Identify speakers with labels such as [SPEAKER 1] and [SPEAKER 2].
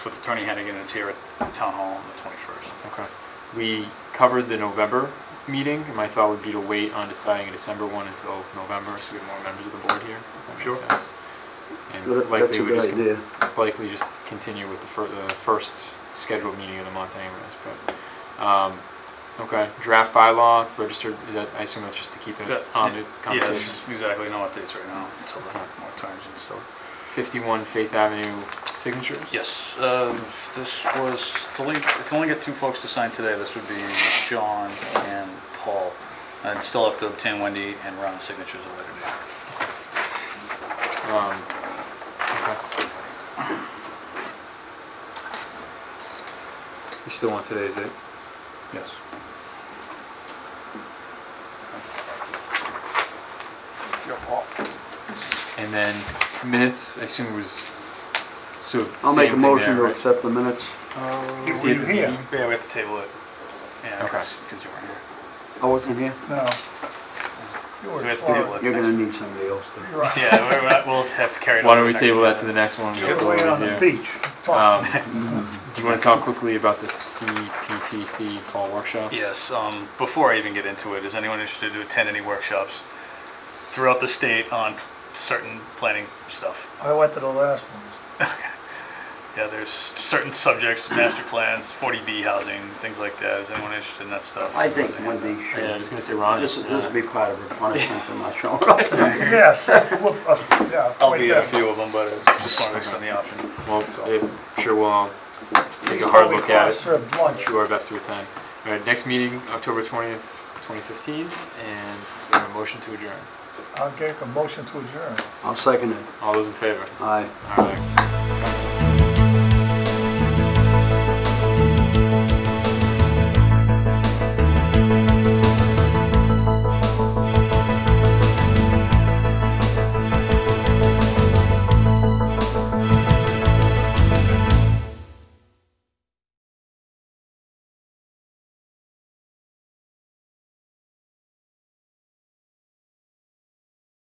[SPEAKER 1] with Attorney Hennigan, it's here at Town Hall on the 21st.
[SPEAKER 2] Okay. We covered the November meeting, and my thought would be to wait on deciding a December one until November, so we have more members of the board here. if that makes
[SPEAKER 1] Sure.
[SPEAKER 2] sense.
[SPEAKER 3] That-
[SPEAKER 2] And
[SPEAKER 3] That's
[SPEAKER 2] likely
[SPEAKER 3] a
[SPEAKER 2] we just,
[SPEAKER 3] good idea.
[SPEAKER 2] likely just continue with the fir, the first scheduled meeting of the month anyways, but, um, okay, draft bylaw, registered, is that, I assume that's just to keep it
[SPEAKER 1] That-
[SPEAKER 2] on the
[SPEAKER 1] Yes,
[SPEAKER 2] conversation.
[SPEAKER 1] exactly, no updates right now until then, more times and stuff.
[SPEAKER 2] Fifty-one Faith Avenue signatures?
[SPEAKER 1] Yes, um, this was, to leave, I can only get two folks to sign today, this would be John and Paul. I'd still have to obtain Wendy and Ron's signatures at a later date.
[SPEAKER 2] Um, okay. You still want today's date?
[SPEAKER 1] Yes. Your Paul.
[SPEAKER 2] And then minutes, I assume it was, so.
[SPEAKER 3] I'll make a
[SPEAKER 2] same thing
[SPEAKER 3] motion to
[SPEAKER 2] there,
[SPEAKER 3] accept the minutes.
[SPEAKER 2] right?
[SPEAKER 1] Were
[SPEAKER 2] Was he at
[SPEAKER 1] you
[SPEAKER 2] the
[SPEAKER 1] here?
[SPEAKER 2] meeting?
[SPEAKER 1] Yeah, Uh, we have to table it. Yeah,
[SPEAKER 2] Okay.
[SPEAKER 1] because you weren't here.
[SPEAKER 3] I wasn't here.
[SPEAKER 4] No.
[SPEAKER 1] So we have to table it.
[SPEAKER 3] You're
[SPEAKER 1] next-
[SPEAKER 3] gonna need somebody else to.
[SPEAKER 4] You're right.
[SPEAKER 1] Yeah, we're- we're- we'll have to carry it on.
[SPEAKER 2] Why don't we
[SPEAKER 1] next
[SPEAKER 2] table
[SPEAKER 1] meeting.
[SPEAKER 2] that to the next one? we
[SPEAKER 4] Get
[SPEAKER 2] have to
[SPEAKER 4] away on the
[SPEAKER 2] review.
[SPEAKER 4] beach. Talk.
[SPEAKER 2] Um, do you want to talk quickly about the CPTC fall workshops?
[SPEAKER 1] Yes, um, before I even get into it, is anyone interested to attend any workshops throughout the state on certain planning stuff?
[SPEAKER 4] I went to the last one.
[SPEAKER 1] Yeah, there's certain subjects, master plans, 40B housing, things like that. Is anyone interested in that stuff?
[SPEAKER 3] I think Wendy
[SPEAKER 2] Yeah, I was
[SPEAKER 3] should.
[SPEAKER 2] gonna say Ron. Uh,
[SPEAKER 3] This, this would be part of her punishment for not showing up.
[SPEAKER 4] Yes, whoop, uh, yeah.
[SPEAKER 1] I'll
[SPEAKER 4] right
[SPEAKER 1] be at a
[SPEAKER 2] uh,
[SPEAKER 4] there.
[SPEAKER 1] few of them, but I just wanted to extend the option.
[SPEAKER 2] Well, I'm sure we'll all take
[SPEAKER 4] He's
[SPEAKER 2] a hard
[SPEAKER 4] probably
[SPEAKER 2] look at it.
[SPEAKER 4] cross-served lunch.
[SPEAKER 2] do our best to attend. All right, next meeting, October 20th, 2015, and uh, motion to adjourn.
[SPEAKER 4] I'll get a motion to adjourn.
[SPEAKER 3] I'll second it.
[SPEAKER 2] All those in favor?
[SPEAKER 3] Aye.
[SPEAKER 2] All right.